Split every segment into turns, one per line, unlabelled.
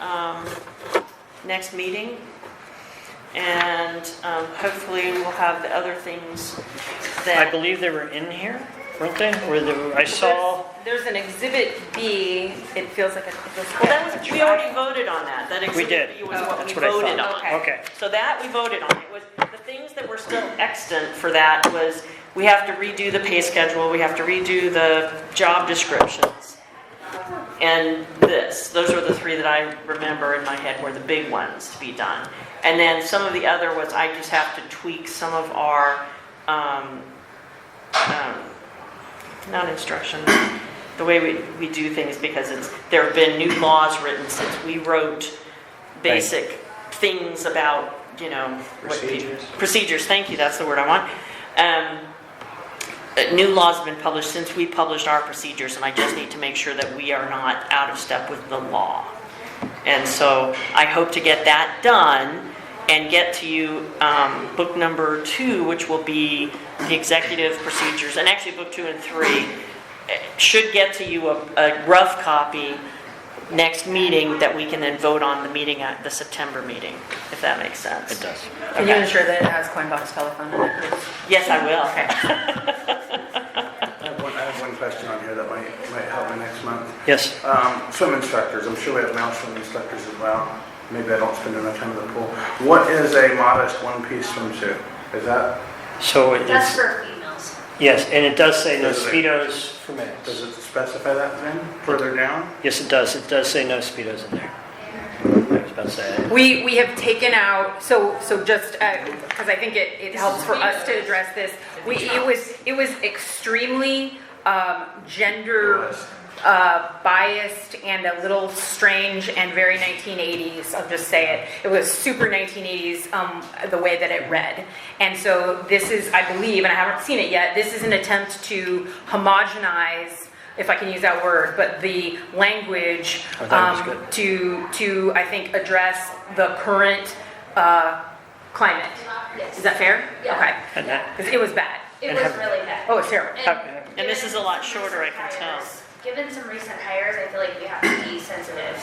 um, next meeting. And um, hopefully we'll have the other things
I
that.
believe they were in here, weren't they? Where they, were- I saw,
There's an exhibit B, it feels like a. it feels-
Well, that was, we already voted on that. That
we did.
exhibit B was what we
That's what I
voted
thought.
on.
Okay.
Okay.
So that we voted on. It was, the things that were still extant for that was, we have to redo the pay schedule, we have to redo the job descriptions. And this, those are the three that I remember in my head were the big ones to be done. And then some of the other was, I just have to tweak some of our, um, um, not instruction, the way we, we do things because it's, there have been new laws written since we wrote basic things about, you know, what pe-
Procedures.
Procedures, thank you, that's the word I want. Um, uh, new laws have been published since we published our procedures, and I just need to make sure that we are not out of step with the law. And so I hope to get that done and get to you um, book number two, which will be the executive procedures, and actually book two and three, eh, should get to you a a rough copy next meeting that we can then vote on the meeting, at the September meeting, if that makes sense.
It does.
Can you ensure that it has coin box telephone in it, please?
Yes, I will.
I have one, I have one question on here that might, might help me next month.
Yes.
Um, swim instructors, I'm sure we have male swim instructors as well. Maybe I don't spend enough time at the pool. What is a modest one-piece swimsuit? Is that,
So it
That's
is,
for females.
yes, and it does say no
Does it-
speedos for males.
does it specify that then, further down?
Yes, it does. It does say no speedos in there. I was about to say it.
We, we have taken out, so, so just, because I think it, it helps for us to address this. We, it was, it was extremely um, gender uh, biased and a little strange and very 1980s, I'll just say it. It was super 1980s, um, the way that it read. And so this is, I believe, and I haven't seen it yet, this is an attempt to homogenize, if I can use that word, but the language
I thought it was
um,
good.
to, to, I think, address the current uh, climate.
Yes.
Is that fair?
Yeah.
Okay.
And that,
Because it was bad.
It
And
was
have-
really bad.
Oh, it's terrible.
Have-
And this is a lot shorter, I can tell.
Given some recent hires, I feel like we have to be sensitive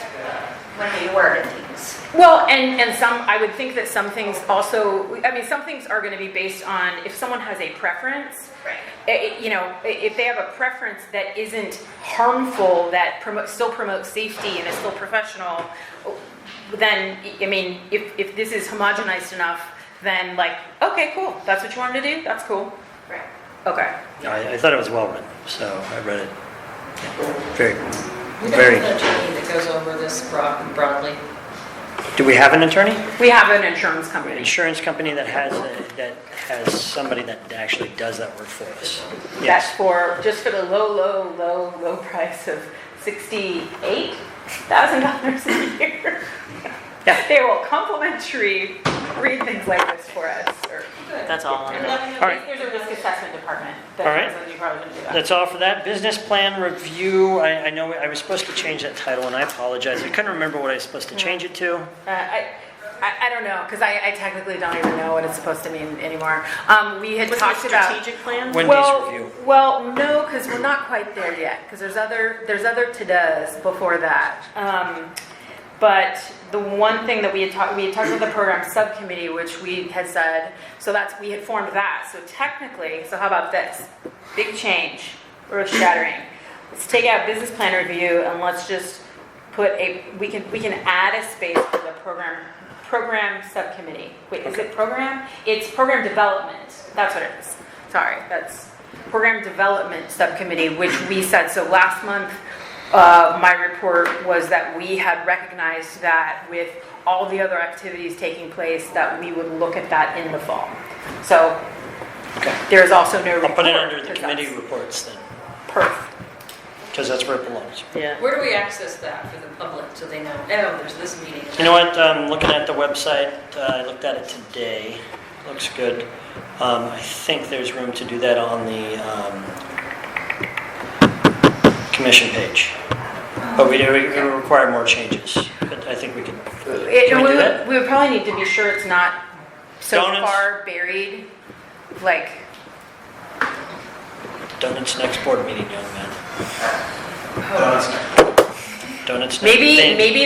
when we word things.
Well, and, and some, I would think that some things also, I mean, some things are going to be based on if someone has a preference.
Right.
i- i- You know, i- if they have a preference that isn't harmful, that promotes, still promotes safety and is still professional, then, I mean, if, if this is homogenized enough, then like, okay, cool, that's what you wanted to do, that's cool.
Right.
Okay.
I, I thought it was well written, so I read it. Very,
We don't
very.
have an attorney that goes over this broad- broadly.
Do we have an attorney?
We have an insurance company.
Insurance company that has, a- that has somebody that actually does that work for us?
That's
Yes.
for, just for the low, low, low, low price of sixty-eight thousand dollars a year.
Yeah.
They will complimentary read things like this for us, or.
That's all I know.
All right.
There's a risk assessment department
that All right.
that
knows
you probably wouldn't do that.
That's all for that. Business plan review, I, I know, I was supposed to change that title, and I apologize. I couldn't remember what I was supposed to change it to.
Uh, I, I, I don't know, because I, I technically don't even know what it's supposed to mean anymore. Um, we had
Was there a
talked about.
strategic plan?
Wendy's
Well,
review.
Well, no, because we're not quite there yet, because there's other, there's other to-dos before that. Um, But the one thing that we had talked, we had talked about the program subcommittee, which we had said, so that's, we had formed that. So technically, so how about this? Big change, earth shattering. Let's take out business plan review and let's just put a, we can, we can add a space for the program, program subcommittee. Wait, is it program? It's program development, that's what it is. Sorry, that's program development subcommittee, which we said, so last month, uh, my report was that we had recognized that with all the other activities taking place, that we would look at that in the fall. So
Okay.
there is also no report.
I'll put Oh, it under the
because
committee
that's
reports then,
Perf.
because that's where it belongs.
Yeah.
Where do we access that for the public so they know, oh, there's this meeting?
You know what, um, looking at the website, uh, I looked at it today, looks good. Um, I think there's room to do that on the, um, commission page. But we do, we we require more changes, but I think we can,
It-
can we do that?
would- We would probably need to be sure it's not so
Donuts?
far buried, like,
Donuts next board meeting, young man.
Does-
Donuts next.
maybe,
Thank-
maybe